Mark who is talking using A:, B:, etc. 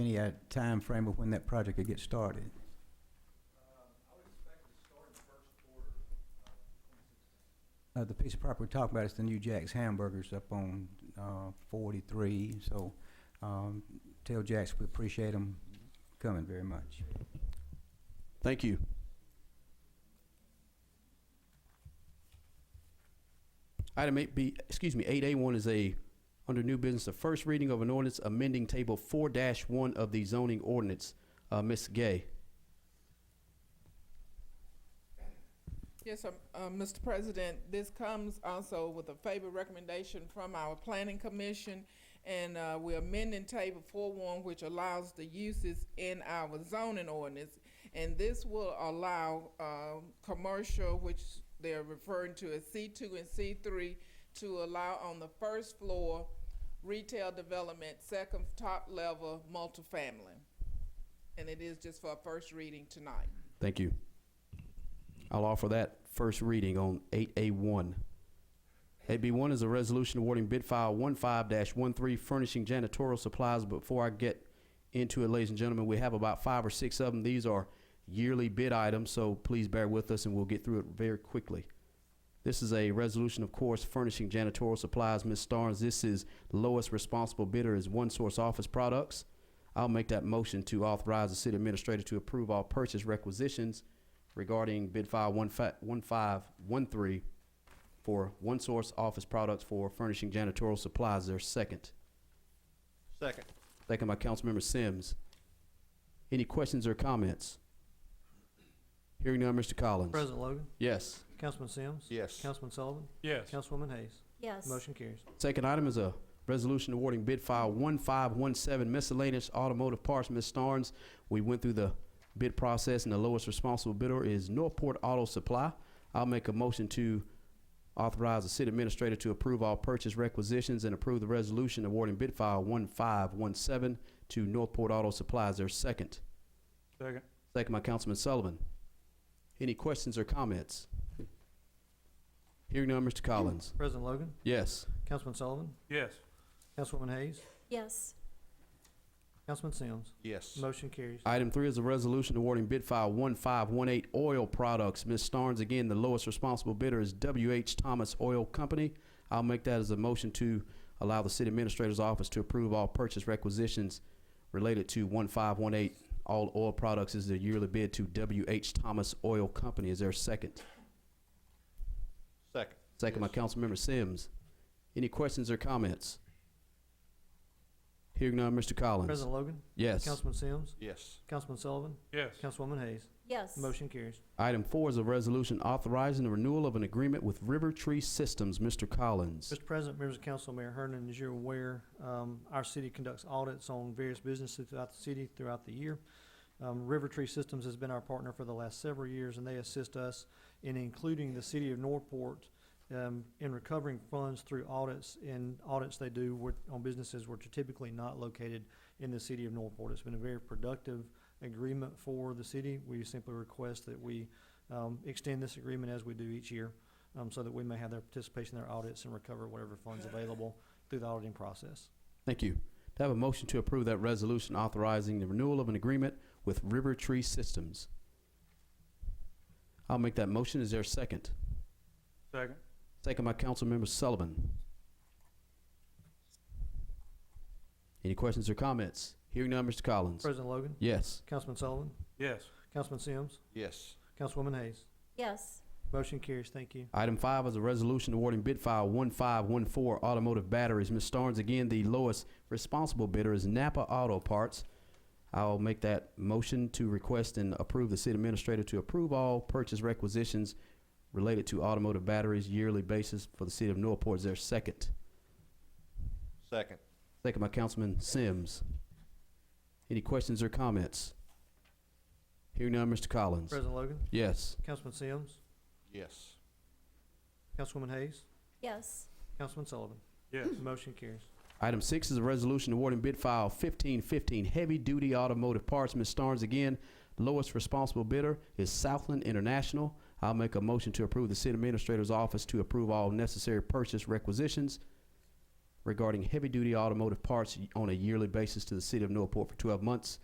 A: Any uh, timeframe of when that project could get started?
B: I would expect to start in the first quarter of
A: Uh, The piece of property we're talking about is the new Jack's Hamburgers up on uh, 43, so um, tell Jack's we appreciate them coming very much.
C: Thank you. Item eight B, excuse me, eight A one is a, under new business, the first reading of an ordinance amending table four one of the zoning ordinance. Uh, Ms. Gay.
D: Yes, um, uh, Mr. President, this comes also with a favor recommendation from our planning commission. And, uh, we're amending table four one, which allows the uses in our zoning ordinance. And this will allow, um, commercial, which they're referring to as C two and C three, to allow on the first floor retail development, second top level multifamily. And it is just for a first reading tonight.
C: Thank you. I'll offer that first reading on 8A1. 8B1 is a resolution awarding bid file 15-13 furnishing janitorial supplies. Before I get into it, ladies and gentlemen, we have about five or six of them. These are yearly bid items, so please bear with us and we'll get through it very quickly. This is a resolution, of course, furnishing janitorial supplies. Ms. Starnes, this is lowest responsible bidder is One Source Office Products. I'll make that motion to authorize the city administrator to approve all purchase requisitions regarding bid file one fi- one five one three for One Source Office Products for furnishing janitorial supplies. Their second.
B: Second.
C: Second by Councilmember Sims. Any questions or comments? Hearing none, Mr. Collins.
E: President Logan,
C: Yes.
E: Councilman Sims.
B: Yes.
E: Councilman Sullivan,
F: Yes.
E: Councilwoman Hayes.
G: Yes.
E: Motion carries.
C: Second item is a resolution awarding bid file 1517 miscellaneous automotive parts. Ms. Starnes, we went through the bid process and the lowest responsible bidder is Northport Auto Supply. I'll make a motion to authorize the city administrator to approve all purchase requisitions and approve the resolution awarding bid file 1517 to Northport Auto Supply. Is there a second?
F: Second.
C: Second by Councilman Sullivan. Any questions or comments? Hearing none, Mr. Collins.
E: President Logan,
C: Yes.
E: Councilman Sullivan,
F: Yes.
E: Councilwoman Hayes,
G: Yes.
E: Councilman Sims.
B: Yes.
E: Motion carries.
C: Item three is a resolution awarding bid file one five one eight oil products. Ms. Starnes, again, the lowest responsible bidder is WH Thomas Oil Company. I'll make that as a motion to allow the city administrator's office to approve all purchase requisitions related to one five one eight. All oil products is the yearly bid to WH Thomas Oil Company. Is there a second?
B: Second.
C: Second by Councilmember Sims. Any questions or comments? Hearing none, Mr. Collins.
E: President Logan,
C: Yes.
E: Councilman Sims,
B: Yes.
E: Councilman Sullivan,
F: Yes.
E: Councilwoman Hayes.
G: Yes.
E: Motion carries.
C: Item four is a resolution authorizing the renewal of an agreement with River Tree Systems. Mr. Collins.
E: Mr. President, members of council, Mayor Hernan, as you're aware, um, our city conducts audits on various businesses throughout the city throughout the year. Um, River Tree Systems has been our partner for the last several years, and they assist us in including the city of Northport um, in recovering funds through audits and audits they do with, on businesses which are typically not located in the city of Northport. It's been a very productive agreement for the city. We simply request that we um, extend this agreement as we do each year um, so that we may have their participation in their audits and recover whatever funds available through the auditing process.
C: Thank you. To have a motion to approve that resolution authorizing the renewal of an agreement with River Tree Systems. I'll make that motion. Is there a second?
F: Second.
C: Second by Councilmember Sullivan. Any questions or comments? Hearing none, Mr. Collins.
E: President Logan,
C: Yes.
E: Councilman Sullivan,
F: Yes.
E: Councilman Sims,
B: Yes.
E: Councilwoman Hayes.
G: Yes.
E: Motion carries. Thank you.
C: Item five is a resolution awarding bid file one five one four automotive batteries. Ms. Starnes, again, the lowest responsible bidder is Napa Auto Parts. I'll make that motion to request and approve the city administrator to approve all purchase requisitions related to automotive batteries yearly basis for the city of Northport. Is there a second?
B: Second.
C: Second by Councilman Sims. Any questions or comments? Hearing none, Mr. Collins.
E: President Logan,
C: Yes.
E: Councilman Sims,
B: Yes.
E: Councilwoman Hayes,
G: Yes.
E: Councilman Sullivan.
F: Yes.
E: Motion carries.
C: Item six is a resolution awarding bid file fifteen fifteen heavy duty automotive parts. Ms. Starnes again, lowest responsible bidder is Southland International. I'll make a motion to approve the city administrator's office to approve all necessary purchase requisitions regarding heavy-duty automotive parts on a yearly basis to the city of Northport for 12 months.